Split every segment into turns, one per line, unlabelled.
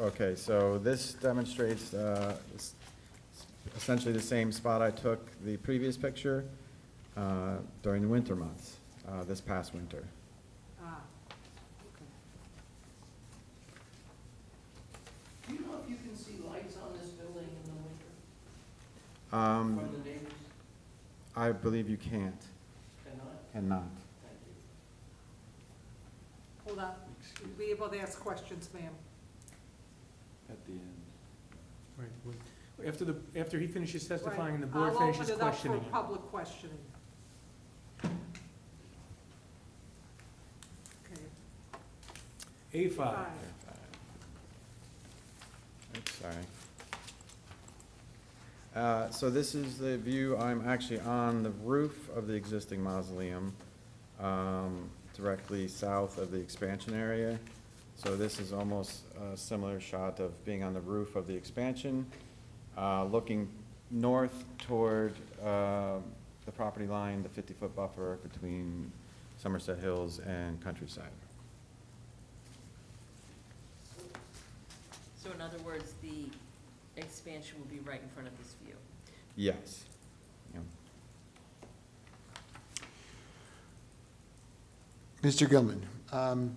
Okay, so this demonstrates uh, s- essentially the same spot I took the previous picture uh, during the winter months, uh, this past winter.
Ah, okay.
Do you know if you can see lights on this building in the winter
Um,
from the neighbors?
I believe you can't
Cannot?
and not.
Thank you.
Hold on, You'll be able to ask questions, ma'am.
At the end.
Right, well, after the, after he finishes testifying and the board
I'll open
finishes
it up for
questioning. him.
Public questioning. Okay,
A five,
five.
Oops, Sorry. Uh, So this is the view, I'm actually on the roof of the existing mausoleum, um, directly south of the expansion area. So this is almost a similar shot of being on the roof of the expansion, uh, looking north toward uh, the property line, the 50-foot buffer between Somerset Hills and Countryside.
So in other words, the expansion will be right in front of this view.
Yes. Yeah.
Mr. Gilman, um,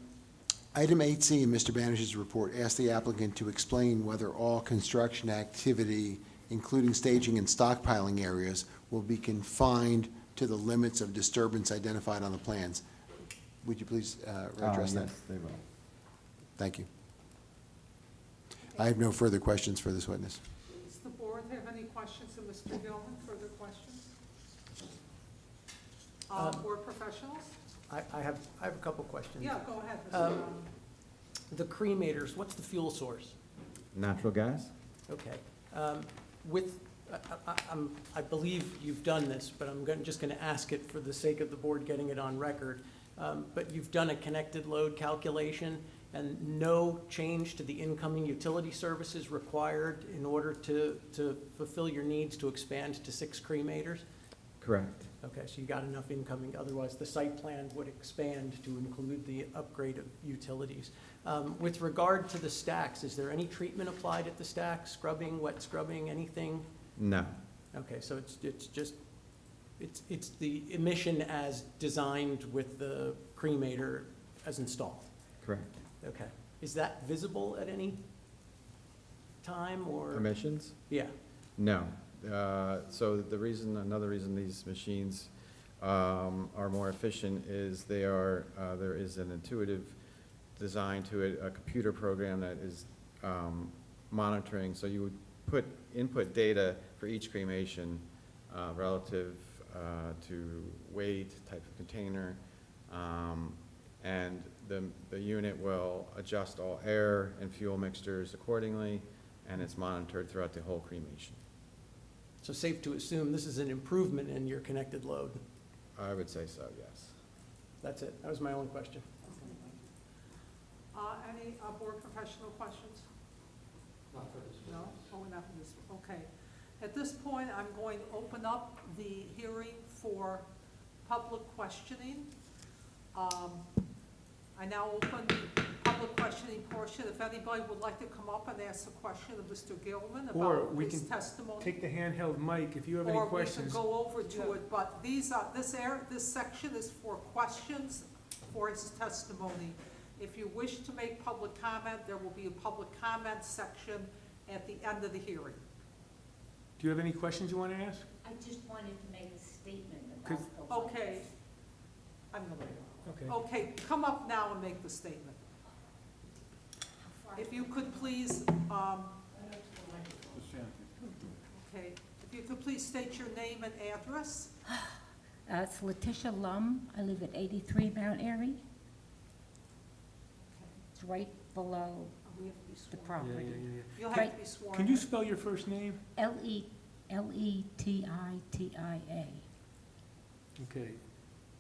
item 8C in Mr. Banish's report asked the applicant to explain whether all construction activity, including staging and stockpiling areas, will be confined to the limits of disturbance identified on the plans. Would you please uh,
Uh,
address that?
Yes, they will.
Thank you. I have no further questions for this witness.
Does the board have any questions of Mr. Gilman, further questions? Uh,
Um,
board professionals?
I, I have, I have a couple questions.
Yeah, go ahead, Mr.
Um,
Gilman.
The cremators, what's the fuel source?
Natural gas?
Okay. Um, With, I, I, I'm- I believe you've done this, but I'm gonna, just gonna ask it for the sake of the board getting it on record. Um, But you've done a connected load calculation and no change to the incoming utility services required in order to, to fulfill your needs to expand to six cremators?
Correct.
Okay, so you got enough incoming, otherwise the site plan would expand to include the upgrade of utilities. Um, With regard to the stacks, is there any treatment applied at the stack, scrubbing, wet scrubbing, anything?
No.
Okay, so it's, it's just, it's, it's the emission as designed with the cremator as installed?
Correct.
Okay, is that visible at any time or?
Emissions?
Yeah,
No. Uh, So the reason, another reason these machines um, are more efficient is they are, uh, there is an intuitive design to it, a computer program that is um, monitoring. So you would put, input data for each cremation uh, relative uh, to weight, type of container. um, And the, the unit will adjust all air and fuel mixtures accordingly, and it's monitored throughout the whole cremation.
so safe to assume this is an improvement in your connected load?
I would say so, yes.
That's it, that was my only question.
Uh, any, uh, board professional questions?
Not for this
No, oh, not for this, okay. At this point, I'm going to open up the hearing for public questioning. Um, I now open the public questioning portion. If anybody would like to come up and ask a question of Mr. Gilman
Or
about
we
his
can
testimony.
take the handheld mic if you have any questions.
Or we can go over to it, but these are, this air, this section is for questions for his testimony. If you wish to make public comment, there will be a public comment section at the end of the hearing.
Do you have any questions you want to ask?
I just wanted to make a statement about
Could-
the lights.
Okay. I'm gonna,
Okay.
okay, come up now and make the statement. If you could please, um, okay, if you could please state your name and address.
Uh, It's Letitia Lum. I live at 83 Mount Airy. It's right below the
Oh,
Yeah, yeah,
property.
yeah,
You'll have to
Right.
be
yeah.
sworn
Can you
in.
spell your first name?
L-E, E L-E-T-I-T-I-A.
Okay.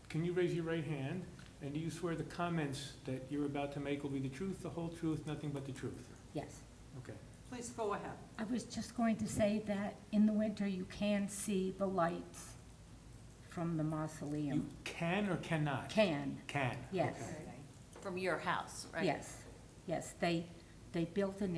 Can you raise your right hand? And do you swear the comments that you're about to make will be the truth, the whole truth, nothing but the truth?
Yes.
Okay.
Please go ahead.
I was just going to say that in the winter, you can see the lights from the
You
mausoleum.
can or cannot?
Can,
Can.
yes,
okay.
From your house, right?
yes, yes. They, they built an